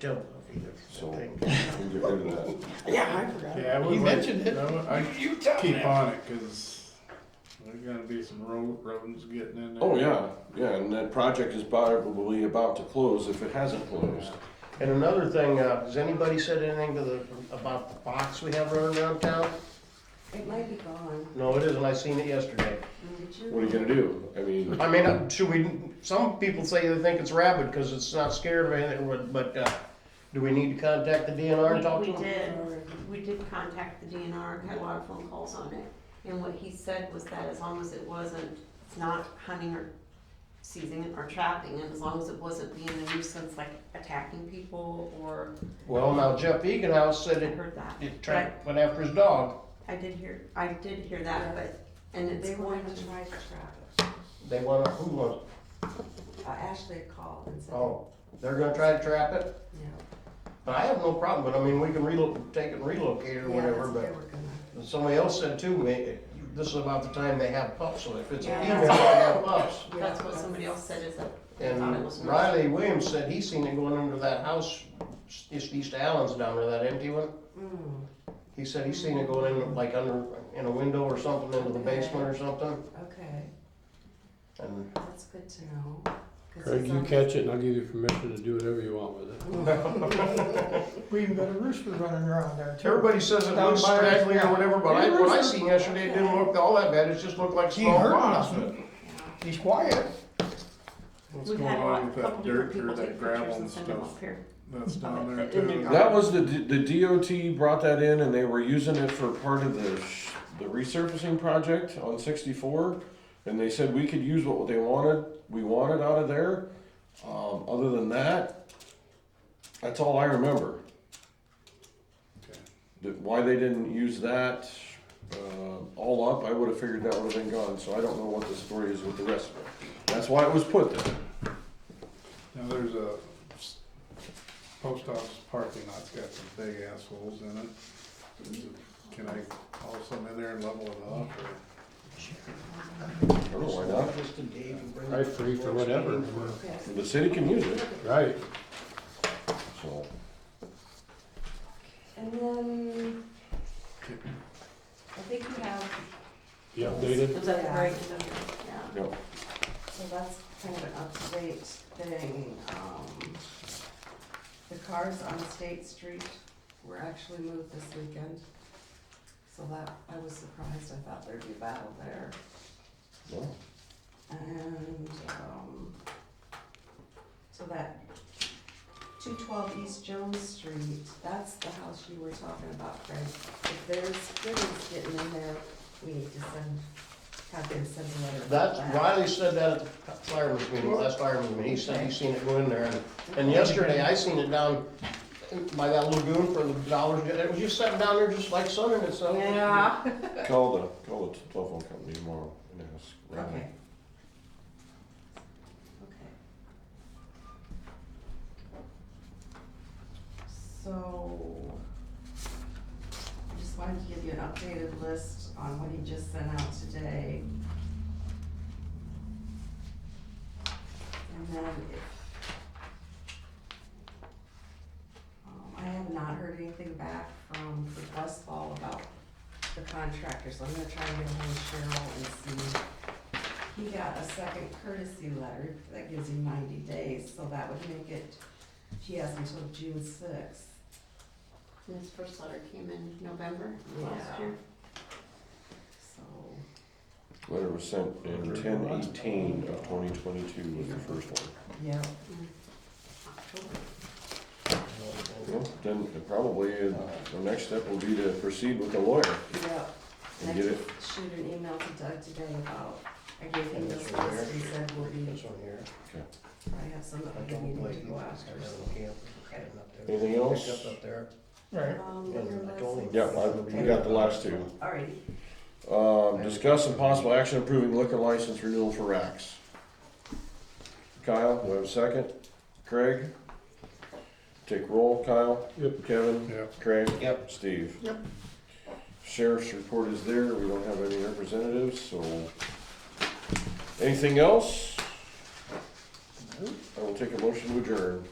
dildo either. So- Thing. We get rid of that. Yeah, I forgot. Yeah, I You would like, mentioned it. I would- I'd You tell me. keep on it, cause there's gonna be some road, rodents getting in there. Oh, yeah, yeah, and that project is probably about to close if it hasn't closed. And another thing, uh, has anybody said anything to the, about the box we have running around town? It might be gone. No, it isn't. I seen it yesterday. What are you gonna do? I mean, I mean, uh, should we, some people say they think it's rabid because it's not scared of anything, but- but, uh, do we need to contact the DNR and talk We to we them? did, we did contact the DNR and had a lot of phone calls on it. And what he said was that as long as it wasn't, it's not hunting or seizing or trapping, and as long as it wasn't being a nuisance, like attacking people or, Well, now Jeff Eganhouse I said it, heard that. it tried, went after his dog. I did hear, I did hear that, but, and it's They going wanted to, to try to trap it. They want, to who wants, Uh, Ashley called and said, oh, they're gonna try to trap it? you know. But I have no problem, but I mean, we can relo, take it and relocate it or Yeah, whatever, that's what but. they were gonna. And Somebody else said too, may- this is about the time they have pups, so if it's a Yeah. female, they have pups. yeah, that's what somebody else said is that they thought it And was. a nuisance. Riley Williams said he seen it going under that house, just east of Allen's down there, that empty one. Mm, He said he seen it going in, like under, in a window or something, into the basement or something. okay, And that's good to know. 'cause Craig, it's you on- catch it and I'll give you permission to do whatever you want with it. We even got a rooster running around there too. everybody says it looks Down by- straggly or whatever, but I, what I seen yesterday, it didn't look all that bad, it just looked like He small heard rocks. nothing. He's quiet. What's We've going had a lot- on with that couple dirt different or that people take pictures gravel and and send them stuff up here. that's down there It didn't too? go- that was the, the DOT brought that in and they were using it for part of the, sh- the resurfacing project on sixty-four. And they said we could use what they wanted, we wanted out of there. Um, other than that, that's all I remember. Okay. That- Why they didn't use that, uh, all up, I would've figured that would've been gone, so I don't know what the story is with the rest of it. That's why it was put there. Now, there's a s- post office parking lot's got some big assholes in it. Is it- Can I haul some in there and level it off or? I don't know why not. Just to Dave and bring it Right, to free the for next whatever. meeting. Yes. The city can use it, Right. so. And then, I think we have, You updated? Was that Yeah. right? Yeah. Yep. so that's kind of an up-to-date thing, um, the cars on State Street were actually moved this weekend. So that, I was surprised, I thought there'd be battle there. Well, And, um, so that two twelve East Jones Street, that's the house you were talking about, Craig. If there's goodies getting in there, we need to send, have them send a letter. about That's, that. Riley said that at the fireman's meeting, last fireman's meeting, he said he seen it go in there, and, and yesterday I seen it down by that lagoon for the dollars, it was just sitting down there just like sunning itself. Yeah, Call the, call the telephone company tomorrow and ask. Riley. okay. Okay. So, I just wanted to give you an updated list on what he just sent out today. And then if. Um, I have not heard anything back from Westfall about the contractor, so I'm gonna try and get ahold of Cheryl and see. He got a second courtesy letter that gives him ninety days, so that would make it, he has until June sixth. And His first letter came in November last Yeah. year. So, Letter was sent in ten eighteen of twenty twenty-two was the first one. yeah, October. Well, Then it probably, uh, the next step will be to proceed with the lawyer yeah. and I get did it. shoot an email to Doug today about, I gave him this That's right list, he said we'll be, That's on here, I have some I that we don't need blame to you, go I after. got a camp, heading up there. Anything else? Picked up up there. Right. Um, Yeah, your I told him. license. Yeah, I, we got the last two. Alrighty, Um, discuss some possible action approving liquor license renewal for Racks. Kyle, do I have a second? Craig? Take roll, Kyle? Yep. Kevin? Yeah. Craig? Yep. Steve? Yep. Sheriff's report is there, we don't have any representatives, so. Anything else? I will take a motion to adjourn.